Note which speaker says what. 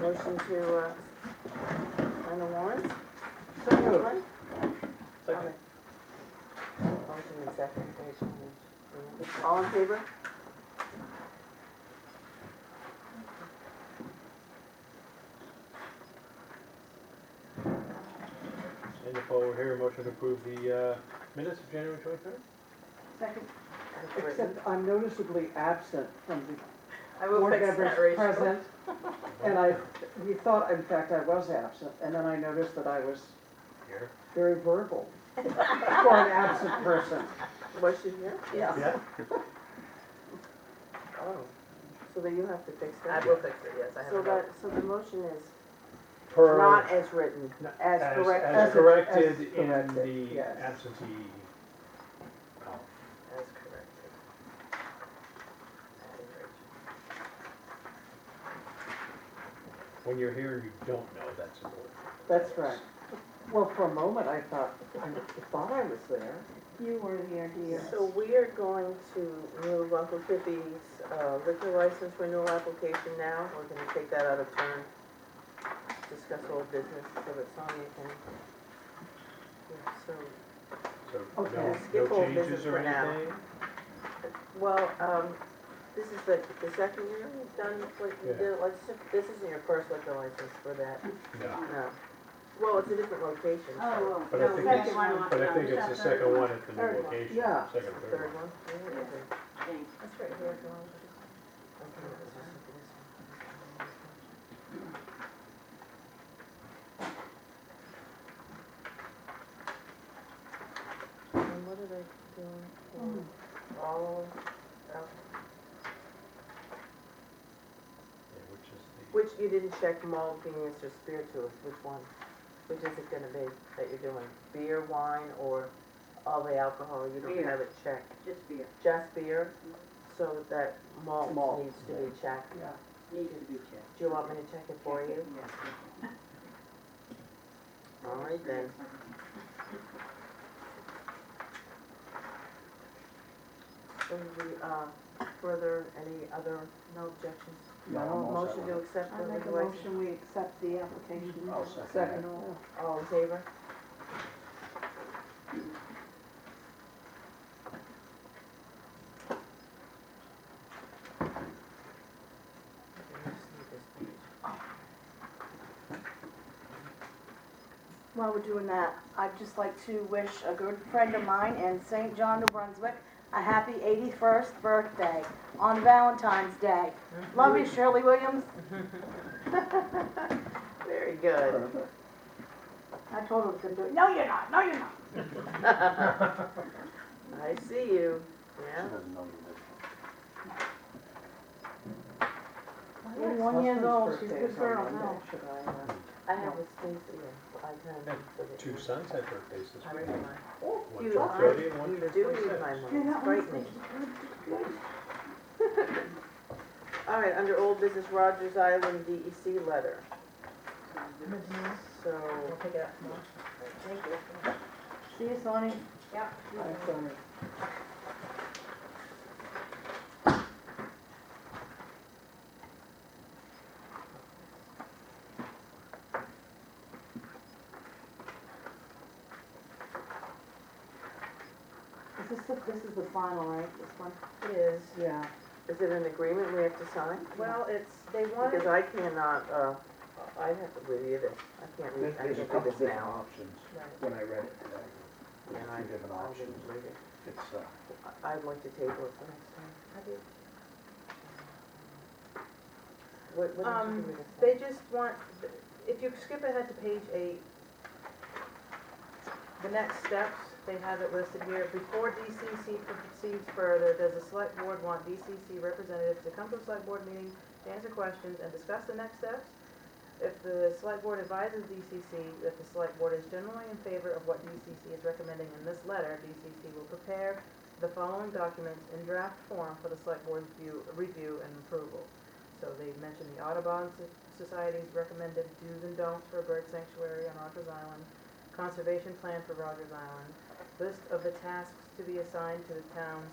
Speaker 1: motion to, uh, sign the warrants?
Speaker 2: So moved.
Speaker 1: Someone?
Speaker 2: Second.
Speaker 1: Motion and second, there's one. All in favor?
Speaker 2: And if we're here, motion to approve the uh, minutes of January twenty-third?
Speaker 3: Second,
Speaker 1: As written.
Speaker 3: except I'm noticeably absent from the
Speaker 4: I will
Speaker 3: board
Speaker 4: fix that,
Speaker 3: members
Speaker 4: Rachel.
Speaker 3: present. And I, we thought, in fact, I was absent, and then I noticed that I was
Speaker 2: Here.
Speaker 3: very verbal for an absent person.
Speaker 1: Was she here?
Speaker 4: Yes,
Speaker 2: Yeah.
Speaker 1: Oh, so then you have to fix
Speaker 4: I
Speaker 1: that.
Speaker 4: will fix it, yes, I have
Speaker 1: So
Speaker 4: a
Speaker 1: that,
Speaker 4: note.
Speaker 1: so the motion is
Speaker 2: Per.
Speaker 1: not as written, as correct.
Speaker 2: As
Speaker 3: as-
Speaker 2: corrected
Speaker 3: as
Speaker 2: in
Speaker 3: corrected,
Speaker 2: the
Speaker 3: yes.
Speaker 2: absentee. column.
Speaker 4: That's corrected. That is Rachel.
Speaker 2: When you're here, and you don't know that's important.
Speaker 3: That's right. Well, for a moment, I thought, I thought I was there.
Speaker 5: You were there, dear.
Speaker 1: So we are going to move Uncle Tippy's uh, liquor license renewal application now. We're gonna take that out of turn. Discuss old business so that Sonia can. Yeah, So,
Speaker 2: So
Speaker 3: Okay.
Speaker 2: no,
Speaker 1: Skip
Speaker 2: no
Speaker 1: old business
Speaker 2: changes or
Speaker 1: for now.
Speaker 2: anything?
Speaker 1: well, um, this is the, the second year we've done, what you
Speaker 2: Yeah.
Speaker 1: did, let's, just- this isn't your first liquor license for that,
Speaker 2: No,
Speaker 1: no. Well, it's a different location. so
Speaker 5: Oh,
Speaker 2: But I
Speaker 5: well, no,
Speaker 2: think
Speaker 5: second
Speaker 2: it's-
Speaker 5: one. on-
Speaker 2: but
Speaker 5: no,
Speaker 2: I think
Speaker 5: is
Speaker 2: it's
Speaker 5: that
Speaker 2: the second one at the
Speaker 5: Third
Speaker 2: new
Speaker 5: one.
Speaker 2: location,
Speaker 3: Yeah.
Speaker 2: second,
Speaker 1: the Third
Speaker 2: third one.
Speaker 1: one? Yeah, okay.
Speaker 5: Thanks.
Speaker 1: That's right here. go on. Okay, let's just look at this one. And what are they doing for all, of-
Speaker 2: Yeah, Which is the.
Speaker 1: which you didn't check malt, Venus, or spirituous, which one? Which is it gonna be that you're doing? Beer, wine, or all the alcohol? You don't
Speaker 5: Beer.
Speaker 1: have it checked.
Speaker 5: Just beer,
Speaker 1: Just beer? So that malt
Speaker 3: Malt,
Speaker 1: needs to be checked.
Speaker 3: Yeah.
Speaker 5: needed to be checked.
Speaker 1: Do you want me to check it for you?
Speaker 5: Yes. yes.
Speaker 1: All right then. So the, uh, further, any other, no objections? Motion to accept
Speaker 5: I
Speaker 1: the
Speaker 5: make a
Speaker 1: regulation?
Speaker 5: motion, we accept the application.
Speaker 6: I'll second that.
Speaker 3: Second,
Speaker 1: All in favor?
Speaker 7: While we're doing that, I'd just like to wish a good friend of mine in St. John, New Brunswick, a happy 81st birthday on Valentine's Day. Love you, Shirley Williams.
Speaker 1: Very good.
Speaker 7: I told her I was gonna do it. No, you're not, no, you're not.
Speaker 1: I see you,
Speaker 6: She
Speaker 1: yeah.
Speaker 6: doesn't know you
Speaker 7: Eighty-one years old, she's a
Speaker 3: Husband's birthday is on
Speaker 7: good girl, no.
Speaker 3: Monday. Should I, uh,
Speaker 1: I have a space here, I can.
Speaker 2: Two sons had birthdays this
Speaker 1: I
Speaker 2: week.
Speaker 1: read mine.
Speaker 2: One
Speaker 1: You
Speaker 2: turned
Speaker 1: are-
Speaker 2: 30 and one
Speaker 1: You
Speaker 2: turned
Speaker 1: do read
Speaker 2: 26.
Speaker 1: my
Speaker 7: You're
Speaker 1: mind,
Speaker 7: not
Speaker 1: it's frightening. All right, under old business Rogers Island DEC letter. So,
Speaker 4: We'll pick it up tomorrow. Thank you.
Speaker 7: See you, Sonny.
Speaker 3: I'm sorry.
Speaker 7: Is this the, this is the final, right, this one?
Speaker 1: it is,
Speaker 3: Yeah.
Speaker 1: is it an agreement we have to sign?
Speaker 4: Well, it's, they wanted,
Speaker 1: Because I cannot, uh, I have to review this, I can't read,
Speaker 6: did.
Speaker 1: I
Speaker 6: There's
Speaker 1: can't
Speaker 6: a
Speaker 1: read
Speaker 6: couple
Speaker 1: this
Speaker 6: different
Speaker 1: now.
Speaker 6: options
Speaker 1: Right.
Speaker 6: when I read it today. There's
Speaker 1: And I-
Speaker 6: a few different
Speaker 1: I
Speaker 6: options.
Speaker 1: didn't read it.
Speaker 6: It's, uh,
Speaker 1: I- I'd like to table it for next time.
Speaker 4: I did.
Speaker 1: What, what did you
Speaker 4: Um,
Speaker 1: do with this?
Speaker 4: They just want, if you skip ahead to page eight, the next steps, they have it listed here. Before DCC proceeds further, does the select board want DCC representatives to come to a select board meeting to answer questions and discuss the next steps? If the select board advises DCC that the select board is generally in favor of what DCC is recommending in this letter, DCC will prepare the following documents in draft form for the select board's view, review and approval. So they mentioned the Audubon Soc- Society's recommended do's and don'ts for a bird sanctuary on Rogers Island, conservation plan for Rogers Island, list of the tasks to be assigned to the towns